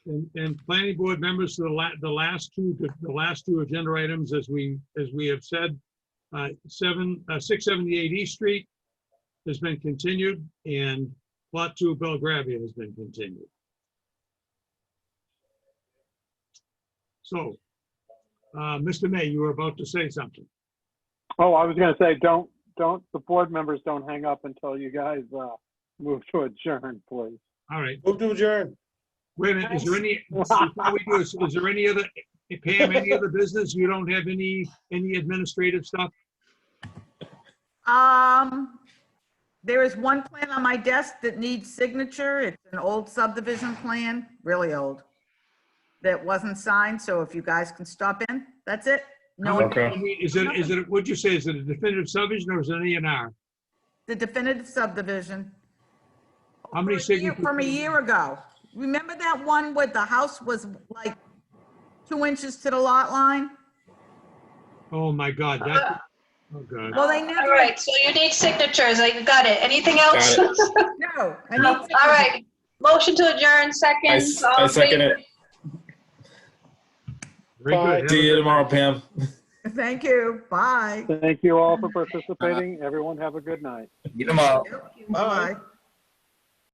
And, and planning board members, the la, the last two, the last two agenda items, as we, as we have said, uh, seven, uh, six seventy-eight East Street has been continued and plot two Belgravia has been continued. So, uh, Mr. May, you were about to say something. Oh, I was gonna say, don't, don't, the board members don't hang up until you guys, uh, move to adjourn, please. All right, Move to adjourn. wait a minute, is there any, before we do, this, is there any other, Pam, any other business? You don't have any, any administrative stuff? Um, there is one plan on my desk that needs signature. It's an old subdivision plan, really old, that wasn't signed, so if you guys can stop in, that's it. No, one- I mean, Is it, is it, what'd you say, is it a definitive subdivision or is it an A and R? the definitive subdivision. How many From a year- signatures? From a year ago. Remember that one where the house was like two inches to the lot line? Oh, my God, that, oh, God. Well, they All never, right, so you need signatures, I got it. Anything else? Got no. I need All signature. right, motion to adjourn, I second. s- all I in second favor? it. Very good. Bye. Have a See you good- tomorrow, Pam. Thank you. Bye. Thank you all for participating. Everyone have a good night. Get them out. Bye.